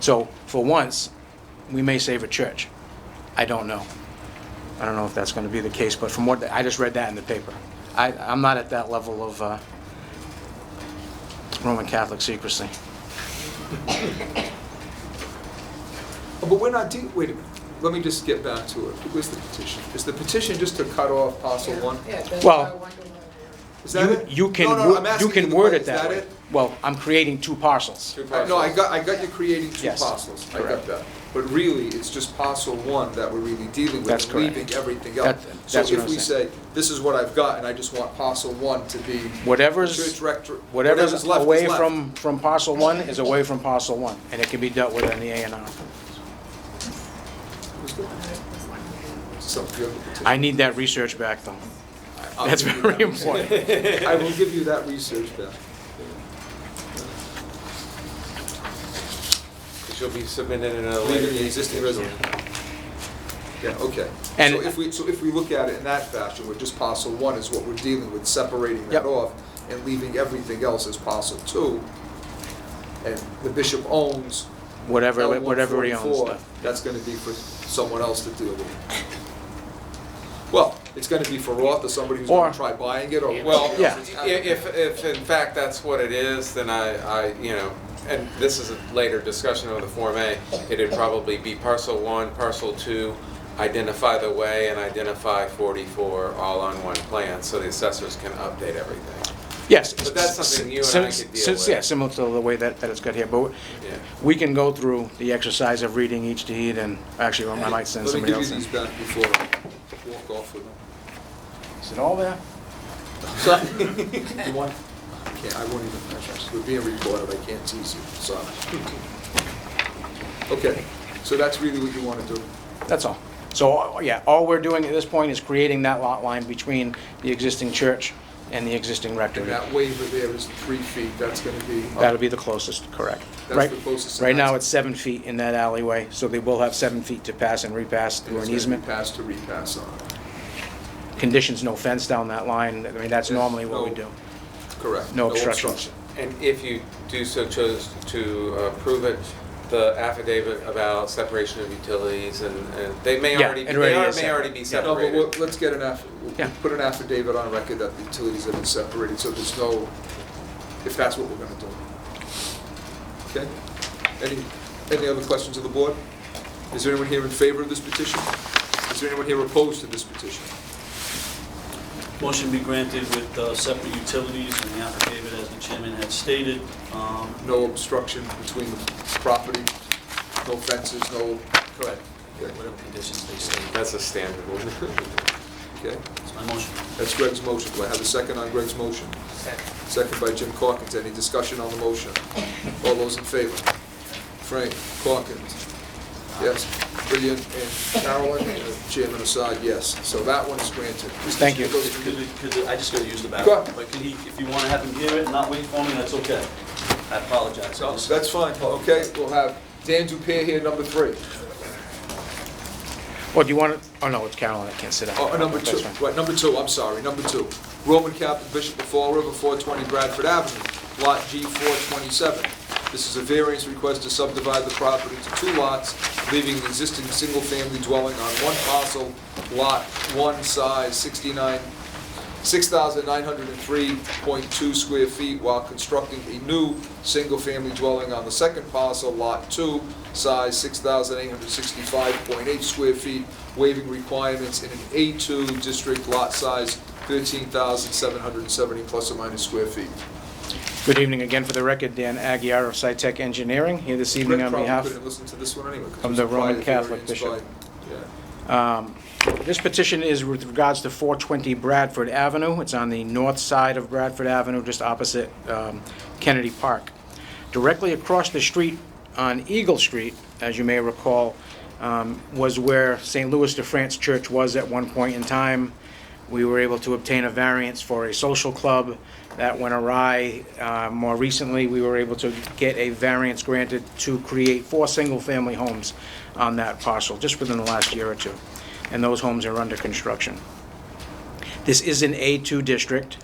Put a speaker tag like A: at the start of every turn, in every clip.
A: So for once, we may save a church. I don't know. I don't know if that's going to be the case, but from what, I just read that in the paper. I, I'm not at that level of uh, Roman Catholic secrecy.
B: Oh, But we're not, de- wait a minute, let me just get back to it. Where's the petition? Is the petition just to cut off parcel one?
C: Yeah, that's
A: Well-
C: why I wonder why
B: Is that
A: You,
B: it?
A: you can,
B: No, no,
A: wo-
B: I'm
A: you
B: asking
A: can
B: the
A: word
B: que-
A: it that
B: Is
A: way.
B: that
A: Well, I'm creating two parcels.
B: it? Uh, No, I got, I got you creating two
A: Yes,
B: parcels, I got
A: correct.
B: that. But really, it's just parcel one that we're really dealing with.
A: That's
B: and
A: correct.
B: Leaving everything
A: That-
B: else. So
A: that's what
B: if
A: I'm
B: we
A: saying.
B: say, this is what I've got, and I just want parcel one to be.
A: Whatever's-
B: Church rector,
A: Whatever's
B: left is
A: away
B: left.
A: from, from parcel one is away from parcel one, and it can be dealt with in the A and R.
B: So, you have the petition.
A: I need that research back, though.
B: I'll
A: That's
B: give you
A: very
B: that research.
A: important.
B: I will give you that research back.
D: She'll be submitted in a later.
B: Leaving the existing resolution. Yeah, okay.
A: And-
B: So if we, so if we look at it in that fashion, where just parcel one is what we're dealing with, separating
A: Yep.
B: that off and leaving everything else as parcel two, and the bishop owns
A: Whatever,
B: L
A: whatever he owns.
B: 144,
A: though.
B: that's gonna be for someone else to deal with. Well, it's gonna be for Roth or somebody who's
A: Or-
B: gonna try buying it, or
D: Well,
B: whatever
A: Yeah.
B: else is
D: i- if, if in fact that's what it is, then I, I, you know, and this is a later discussion of the Form A, it'd probably be parcel one, parcel two, identify the way and identify forty-four all on one plan, so the assessors can update everything.
A: Yes.
D: But that's something you and I could deal
A: Since- Yeah,
D: with.
A: similar to the way that, that it's got here, but
D: Yeah.
A: we can go through the exercise of reading each deed, and actually, I might send
B: Let
A: somebody
B: me give you
A: else in.
B: these back before I walk off with them.
A: Is it all there?
B: Can't, I won't even measure. We're being recorded, I can't tease you, sorry. Okay, so that's really what you want to do?
A: That's all. So, uh, yeah, all we're doing at this point is creating that lot line between the existing church and the existing
B: And
A: rectory.
B: that waiver there is three feet, that's going to be...
A: That'll be the closest, correct.
B: That's
A: Right-
B: the closest, and
A: Right now,
B: that's-
A: it's seven feet in that alleyway, so they will have seven feet to pass and repass through an easement.
B: Pass to repass on,
A: Conditions, no fence down that line, I mean, that's
B: Yes,
A: normally what we
B: no.
A: do.
B: correct.
A: No obstructions.
D: And if you do so chose to approve it, the affidavit about separation of utilities and, and they may
A: Yeah,
D: already,
A: it
D: they
A: already
D: are-
A: is
D: may already be
A: separate.
B: No, but
D: separated.
B: we'll- let's get an aff,
A: Yeah.
B: we'll put an affidavit on record that the utilities have been separated, so there's no, if that's what we're going to do. Okay? Any, any other questions of the board? Is there anyone here in favor of this petition? Is there anyone here opposed to this petition?
E: Motion be granted with uh, separate utilities and the affidavit, as the chairman had stated. Um,
B: no obstruction between the property, no fences, no,
E: Correct.
B: Okay,
E: Whatever conditions they state.
D: That's a standard one.
B: okay?
E: That's my motion.
B: That's Greg's motion. Do I have a second on Greg's motion? Second. Second by Jim Corkins. Any discussion on the motion? All those in favor? Frank, Corkins, yes. Brilliant, and Carolyn, and Chairman Assad, yes. So that one's granted.
A: Thank you.
E: Could, could, I just gotta use the
B: Go
E: bathroom.
B: ahead.
E: But could he, if you wanna have him hear it and not wait for me, that's okay. I apologize.
B: No,
E: Just-
B: That's fine, okay? We'll have Dan Dupere here, number three.
A: Or do you want to, oh, no, it's Carolyn, that can't sit out.
B: Oh, number two,
A: That's fine.
B: right, number two, I'm sorry, number two. Roman Catholic Bishop of Fall River, 420 Bradford Avenue, Lot G427. This is a variance request to subdivide the property to two lots, leaving an existing single-family dwelling on one parcel, Lot 1, size 69, 6,903.2 square feet, while constructing a new single-family dwelling on the second parcel, Lot 2, size 6,865.8 square feet, waiving requirements in an A2 district, lot size 13,770 plus or minus square feet.
A: Good evening again for the record, Dan Aguirre of SciTech Engineering, here this evening
B: Rick
A: on
B: probably
A: behalf.
B: couldn't listen to this one anyway. 'cause
A: of
B: it was
A: the Roman
B: prior
A: Catholic
B: variance
A: bishop.
B: by- yeah.
A: This petition is with regards to 420 Bradford Avenue. It's on the north side of Bradford Avenue, just opposite um, Kennedy Park. Directly across the street on Eagle Street, as you may recall, um, was where St. Louis de France Church was at one point in time. We were able to obtain a variance for a social club that went awry. Uh, More recently, we were able to get a variance granted to create four single-family homes on that parcel, just within the last year or two. And those homes are under construction. This is an A2 district.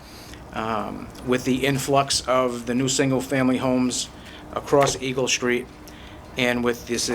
A: Um, With the influx of the new single-family homes across Eagle Street, and with this